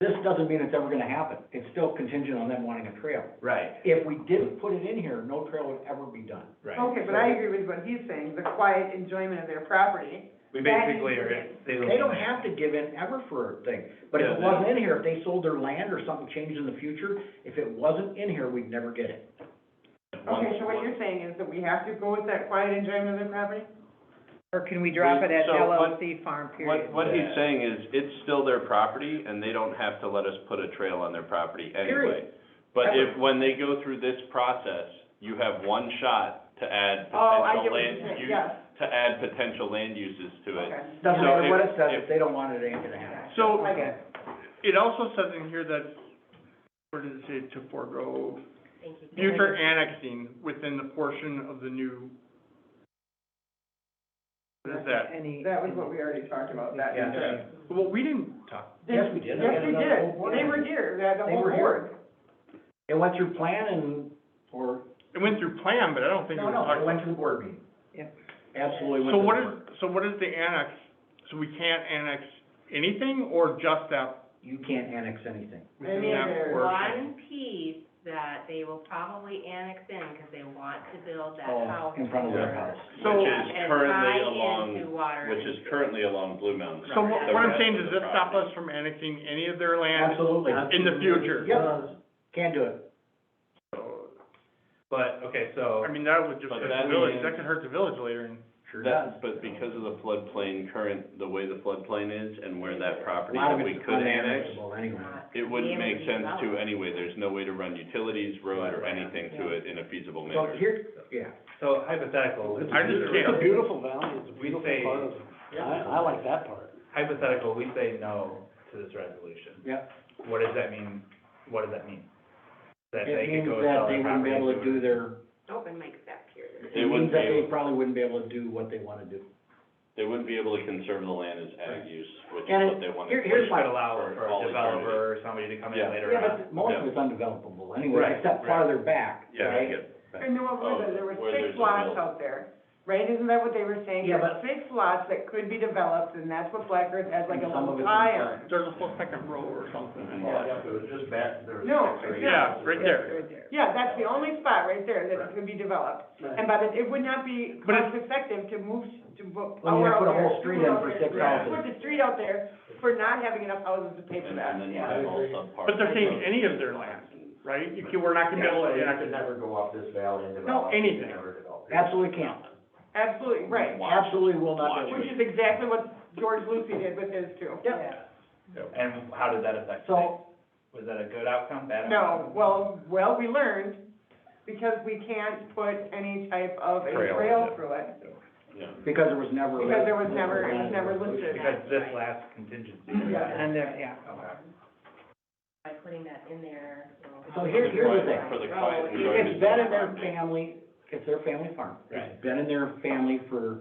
This doesn't mean it's ever gonna happen. It's still contingent on them wanting a trail. Right, If we didn't put it in here, no trail would ever be done. right. Okay, but I agree with what he's saying, the quiet enjoyment of their property. We basically are, they They don't have to give in ever for a thing, but if Yeah, it they- wasn't in here, if they sold their land or something changed in the future, if it wasn't in here, we'd never get it. Okay, so what you're saying is that we have to go with that quiet enjoyment of their property? Or can we drop it at So what- LLC farm period? What, what he's saying is, it's still their property, and they don't have to let us put a trail on their property anyway. Period. But if, when they go through this process, you have one shot to add Oh, I get potential what you're land saying, use, yes, to add potential land uses to it. okay. Doesn't So matter if- what it says, if- if they don't want it, it ain't gonna happen. So, I get it also says in here that, where does it say to forego? Future annexing within the portion of the new. What is that? Any. it. That was what we already talked about, that. Yeah. enjoyment. Well, we didn't talk, Yes, we did. Yes, we Yeah, did, the whole board. they were here, the- the They whole were here. board. It went through plan and, or, it went through plan, but I don't think it no, was no, talked it went through the board meeting. Yep. Absolutely went through So the what is, board. so what is the annex? So we can't annex anything or just that? You can't annex anything. within Any that other portion? One piece that they will probably annex in, because they want to build that Oh, house. in front of their there. house. So- Which is And currently tie into along, water. which is currently along Blue Mountain. So what, what I'm The saying, rest does of this the stop property. us from annexing any of their land? Absolutely. in the future. Yep, can do it. So, But, okay, so, I mean, that would just But hurt that the village, means- that could hurt the village later and. Sure does. That, but because of the floodplain current, the way the floodplain is, and where that A property lot of that we it's could annex, unannexable Anyway. It wouldn't make sense to it. anyway, there's no way to run utilities, road, or anything to it in a So feasible manner. here, yeah. so hypothetical, I just can't. beautiful valley, it's a we beautiful say, part of, I, I like that part. hypothetical, we say no to this resolution. Yep. What does that mean, what does that mean? That It they could means go that sell they their wouldn't property be and able to do their, Open mic back here. it They means wouldn't be that they able, probably wouldn't be able to do what they wanna do. they wouldn't be able to conserve the land as ag use, which is And what they want to. here- Which here's my- could allow for all a developer or somebody to come in Yeah. later Yeah, on. but most of it's undevelopable anyway, Right, except right. farther back, Yeah, I right? get it. And then what was it, there were Oh, where six there's a lots mill. out there, right, isn't that what they were saying? Yeah, There were Six lots that could be developed, and that's what Black Earth has like a And some of it's little in tie plan. on. There's a whole second row or something. No, Yeah, right there. Yeah, that's the only spot right there that could be developed, and by the, it would not be But cost effective to move, to bo- Well, you power out put a there, whole street put in out for there, six Right. houses. Put the street out there for not having enough houses to pay for And that, and then you yeah. have all subpar. But they're saying any of their land, right? You can, we're not gonna be able to annex never go off this valley and No, anything. Absolutely can't, Absolutely, right, Watch. absolutely will not do which it. is exactly what George Lucy did with his too. Yep. And how did that affect things? So, Was that a good outcome, bad No, outcome? well, well, we learned, because we can't put any type of a Trail, trail yeah. through it, Yeah. because there was never. a- because there was never, it was never listed. Because this last contingency. Yeah. And there, yeah. Okay. By putting that in there. we'll- So here- here's the thing. For Oh, the quiet majority. It's been in their family, it's their family farm. It's Right. been in their family for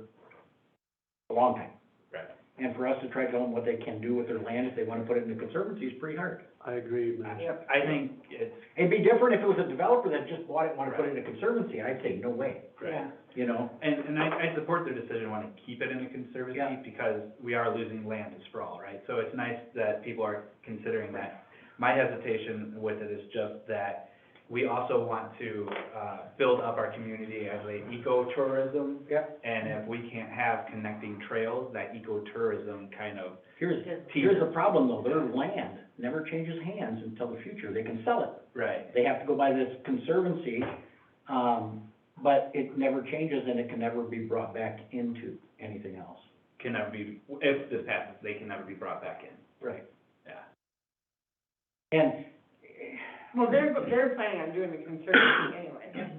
a long time. Right. And for us to try to tell them what they can do with their land if they wanna put it in the conservancy is pretty hard. I agree, man. I think it's, It'd be different if it was a developer that just bought it and wanted to put it in a conservancy, I'd say, no way, right. you know? And, and I, I support their decision wanting to keep it in the conservancy Yeah. because we are losing land to sprawl, right? So it's nice that people are considering that. My hesitation with it is just that we also want to, uh, build up our community as a ecotourism. Yeah. And if we can't have connecting trails, that ecotourism kind of, Here's, Because here's the problem though, their land never changes hands until the future, they can sell it. right, They have to go by this conservancy, um, but it never changes and it can never be brought back into anything else. can never be, if this passes, they can never be brought back in. Right. Yeah. And, Well, they're, they're planning on doing the conservancy anyway,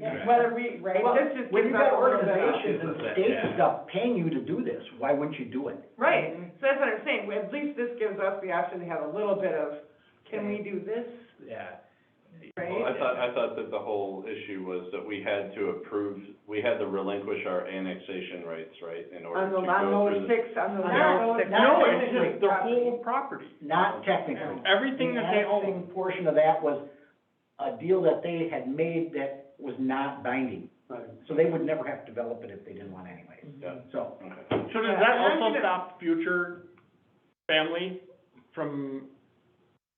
Yeah. whether we, right, well, this just when gives you've us got a little bit of- organizations and Yeah. states and stuff paying you to do this, why wouldn't you do it? Right, Um, so that's what I'm saying, at least this gives us the option to have a little bit of, can we do this, Yeah. right? Well, I thought, I thought that the whole issue was that we had to approve, we had to relinquish our annexation rights, right, in order On to the, go through the. on those six, on the. On on those those- six. not No, it's technically just their property. whole property. Not technically. Everything that they The own. annexing portion of that was a deal that they had made that was not binding. Right. So they would never have to develop it if they didn't want anyways. Yeah. So, So does that also stop future family from